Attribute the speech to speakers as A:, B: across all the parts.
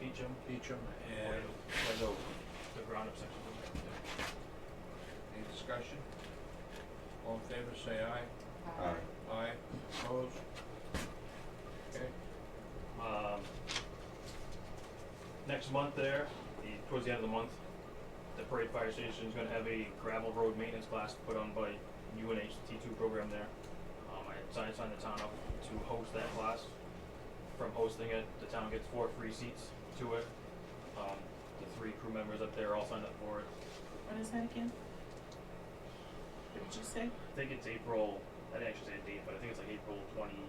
A: Beecham,
B: Beecham and
A: and
B: Wendover.
A: the ground-up section.
B: Any discussion? All in favor, say aye.
C: Aye.
B: Aye. Opposed? Okay.
A: Um, next month there, the, towards the end of the month, the Parade Fire Station is gonna have a gravel road maintenance class put on by UNH T two program there. Um, I had signed, signed the town up to host that class. From hosting it, the town gets four free seats to it. Um, the three crew members up there all signed up for it.
D: What is that again? What did you say?
A: I think it's April, I didn't actually say a date, but I think it's like April twenty,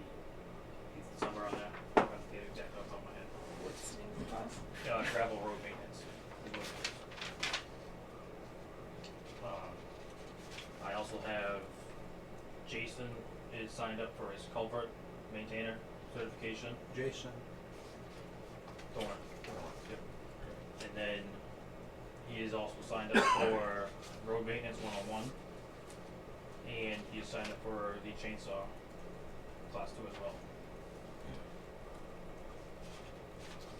A: somewhere on there. I don't have the date exactly off the top of my head.
D: What's the name of the class?
A: uh, gravel road maintenance. is what it is. Um, I also have Jason is signed up for his culvert maintainer certification.
B: Jason?
A: Thorn. And then he is also signed up for road maintenance one on one. And he is signed up for the chainsaw class two as well.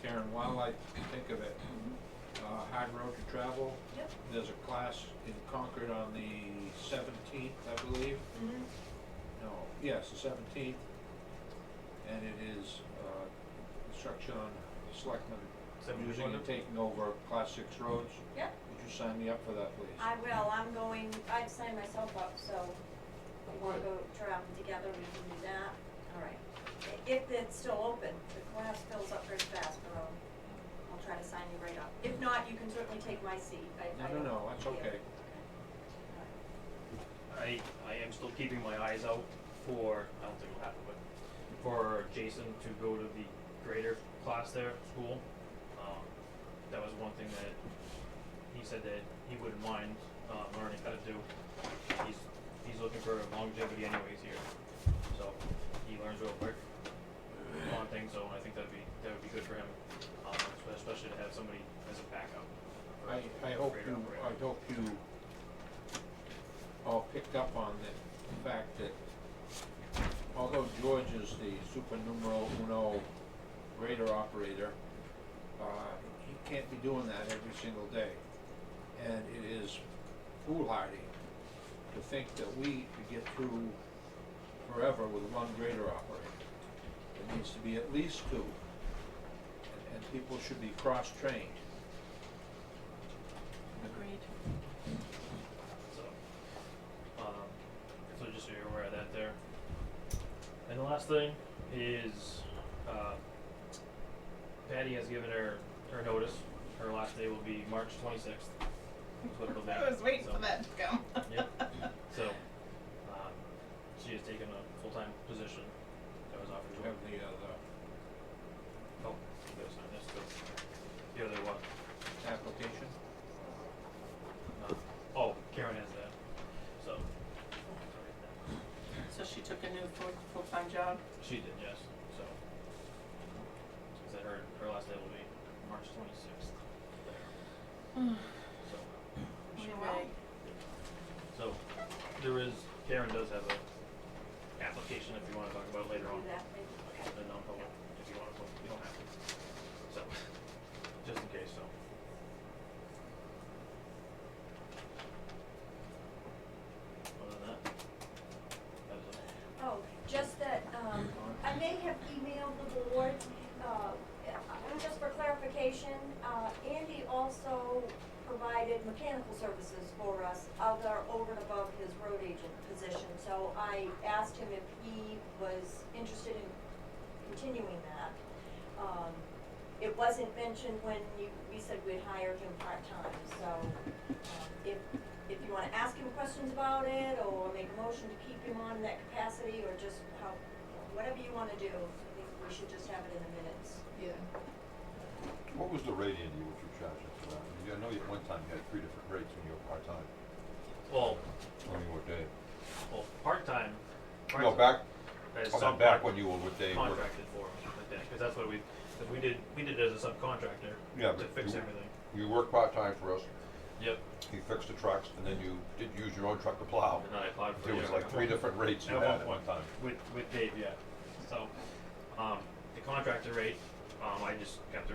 B: Karen, while I think of it,
D: Mm-hmm.
B: uh, hard road to travel,
D: Yep.
B: there's a class in Concord on the seventeenth, I believe.
D: Mm-hmm.
B: No, yes, the seventeenth. And it is, uh, instruction on selectmen using and taking over class six roads.
C: Yep.
B: Would you sign me up for that, please?
C: I will, I'm going, I've signed myself up, so we wanna go traveling together, we can do that, all right. I- If it's still open, the class fills up pretty fast, but I'll, I'll try to sign you right up. If not, you can certainly take my seat, I, I
B: No, no,
C: don't-
B: no, that's
C: yeah.
B: okay.
A: I, I am still keeping my eyes out for, I don't think it'll happen, but for Jason to go to the greater class there, school. Um, that was one thing that he said that he wouldn't mind, uh, learning how to do. He's, he's looking for longevity anyways here, so he learns real quick on things, so I think that'd be, that would be good for him, um, especially to have somebody as a backup. for
B: I, I hope
A: greater
B: you,
A: operator.
B: I hope you all picked up on the fact that although George is the super numero uno grader operator, uh, he can't be doing that every single day. And it is foolhardy to think that we could get through forever with one grader operator. There needs to be at least two. And, and people should be cross-trained.
D: Agreed.
A: So, um, so just so you're aware of that there. And the last thing is, uh, Patty has given her, her notice. Her last day will be March twenty-sixth. That's what it'll be.
D: I was waiting
A: So-
D: for that to come.
A: Yep. So, um, she has taken a full-time position that was offered
B: We
A: to her.
B: have the other
A: Oh, there's not this, the- the other one.
B: application.
A: Uh, oh, Karen has that. So,
D: So she took a new full, full-time job?
A: She did, yes. So, she said her, her last day will be March 26th. So,
D: Oh, Anyway,
A: so there is, Karen does have a application if you want to talk about it later
C: Do
A: on.
C: that, maybe. okay.
A: The non-public, if you want to, you don't have to. So, just in case, so. Other than that, that is it.
C: Oh, just that, um, I may have emailed the board, uh, just for clarification, uh, Andy also provided mechanical services for us, other over and above his road agent position, so I asked him if he was interested in continuing that. Um, it wasn't mentioned when you, we said we'd hired him part-time, so, um, if, if you wanna ask him questions about it, or make a motion to keep him on in that capacity, or just how, whatever you wanna do, I think we should just have it in the minutes.
D: yeah.
E: What was the rate, Andy, what you charging for that? I mean, I know you, at one time you had three different rates when you were part-time,
A: Well,
E: when you were Dave.
A: well, part-time.
E: No,
A: part-
E: back,
A: as
E: oh, no, back when you were with Dave. work-
A: contracted for, like that, because that's what we, because we did, we did it as a subcontractor
E: Yeah,
A: to
E: but
A: fix
E: you-
A: everything.
E: You worked part-time for us,
A: Yep.
E: you fixed the trucks, and then you did use your own truck to plow.
A: And then I applied for.
E: There
A: the
E: was
A: other
E: like three
A: one.
E: different rates you
A: At
E: had at
A: one
E: one time.
A: With, with Dave, yeah. So, um, the contractor rate, um, I just kept the